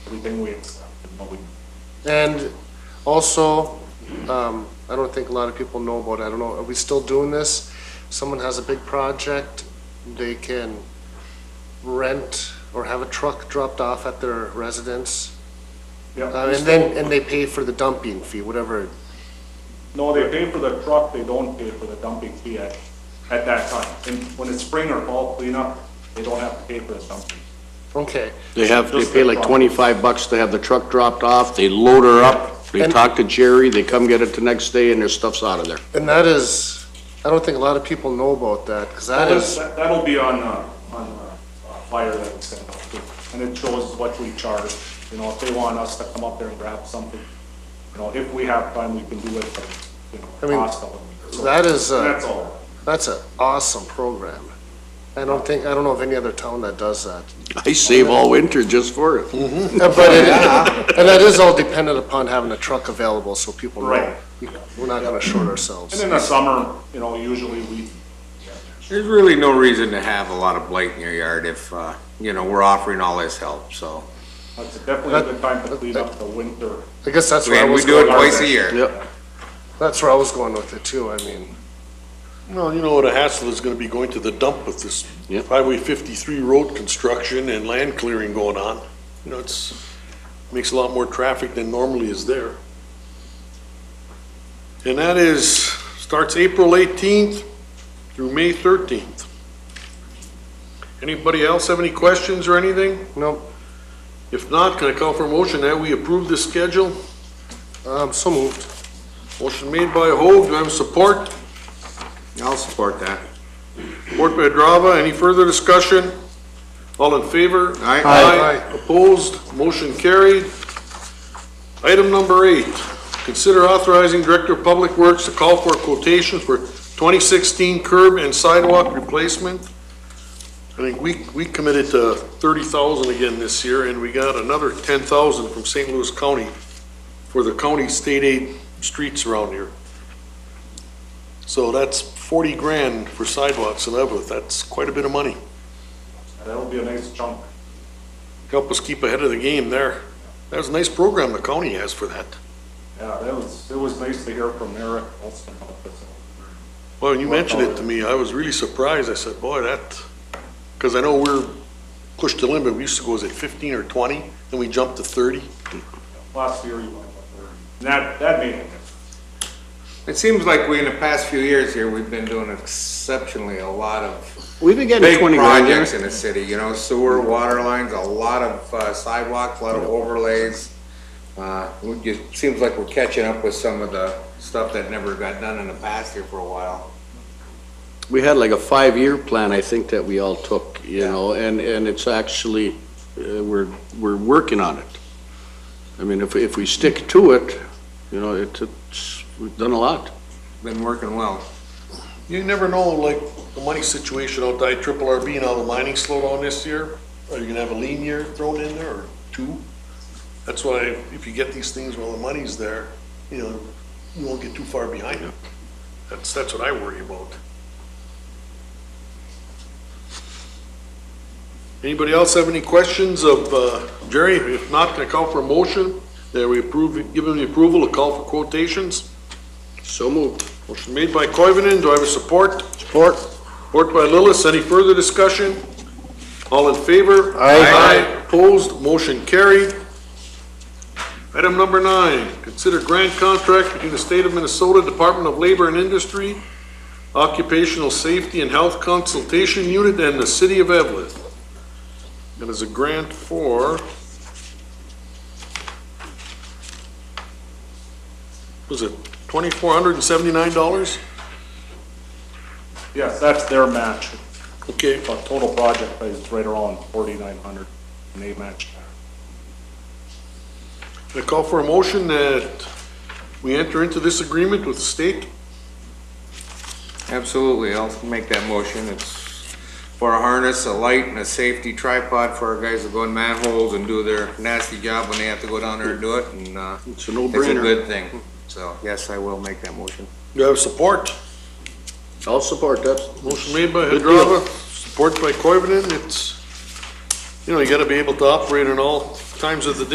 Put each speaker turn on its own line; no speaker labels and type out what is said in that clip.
everything we, what we
And also, um, I don't think a lot of people know about it. I don't know, are we still doing this? Someone has a big project, they can rent or have a truck dropped off at their residence.
Yeah,
Uh,
we
and then,
still-
and they pay for the dumping fee, whatever.
No, they pay for the truck, they don't pay for the dumping fee at, at that time. And when it's spring or fall cleanup, they don't have to pay for the dumping.
Okay.
They have, they
Just
pay
the
like
truck.
twenty-five bucks to have the truck dropped off, they load her up, they
And-
talk to Jerry, they come get it the next day, and their stuff's out of there.
And that is, I don't think a lot of people know about that, because that is,
That- That'll be on, uh, on uh, flyer that we send out too. And it shows what we charge, you know, if they want us to come up there and grab something, you know, if we have time, we can do it, but, you
I
know,
mean,
cost of it. So
that is,
That's
uh,
all.
that's an awesome program. I don't think, I don't know of any other town that does that.
I save all winter just for it.
Uh, But it, and that is all dependent upon having a truck available, so people know.
Right.
We're not gonna short
And
ourselves.
in the summer, you know, usually we,
There's really no reason to have a lot of blight in your yard if, uh, you know, we're offering all this help, so.
it's definitely a good time to clean up the winter.
I guess that's where I
And we
was
do it
going,
twice a year.
Yep.
that's where I was going with it too, I mean,
Well, you know what a hassle is gonna be going to the dump with this
Yep.
Highway fifty-three road construction and land clearing going on. You know, it's, makes a lot more traffic than normally is there. And that is, starts April eighteenth through May thirteenth. Anybody else have any questions or anything?
nope,
If not, can I call for a motion that we approve this schedule?
um, so moved.
Motion made by Hove, do I have support?
I'll support that.
Support by Hadrava, any further discussion? All in favor?
Aye.
Aye.
Opposed, motion carried. Item number eight, consider authorizing Director of Public Works to call for quotations for 2016 curb and sidewalk replacement. I think we, we committed to 30,000 again this year, and we got another 10,000 from St. Louis County for the county state aid streets around here. So that's 40 grand for sidewalks and everything, that's quite a bit of money.
That'll be a nice chunk.
Help us keep ahead of the game there. That was a nice program the county has for that.
Yeah, that was, it was nice to hear from Eric Olson about this.
Well, when you mentioned it to me, I was really surprised. I said, boy, that, because I know we're pushed to limit. We used to go, was it 15 or 20? Then we jumped to 30.
Last year you went up there. And that, that made it.
It seems like we, in the past few years here, we've been doing exceptionally a lot of
We've been getting
big
twenty grand there.
projects in the city, you know, sewer, water lines, a lot of uh, sidewalks, a lot of overlays. Uh, we just, seems like we're catching up with some of the stuff that never got done in the past here for a while.
We had like a five-year plan, I think, that we all took, you know, and, and it's actually, uh, we're, we're working on it. I mean, if, if we stick to it, you know, it- it's, we've done a lot.
Been working well.
You never know, like, the money situation out there, triple RB and all the mining slowed down this year. Are you gonna have a lean year thrown in there, or two? That's why, if you get these things while the money's there, you know, you won't get too far behind it. That's, that's what I worry about. Anybody else have any questions of uh, Jerry? If not, can I call for a motion that we approve, give him the approval to call for quotations?
So moved.
Motion made by Koivunen, do I have a support?
Support.
Support by Lillis, any further discussion? All in favor?
Aye.
Opposed, motion carried. Item number nine, consider grant contract between the State of Minnesota Department of Labor and Industry, Occupational Safety and Health Consultation Unit, and the City of Evlith. It is a grant for... Was it $2,479?
Yes, that's their match.
Okay.
The total project is right around forty-nine hundred, and they match.
I call for a motion that we enter into this agreement with the state.
Absolutely, I'll make that motion. It's for a harness, a light, and a safety tripod for our guys to go in manholes and do their nasty job when they have to go down there and do it, and, uh,
It's a
it's a
no-brainer.
good thing. So, yes, I will make that motion.
Do I have support?
I'll support that.
Motion made by
Good deal.
Hadrava, support by Koivunen. It's, you know, you gotta be able to operate in all times of the day.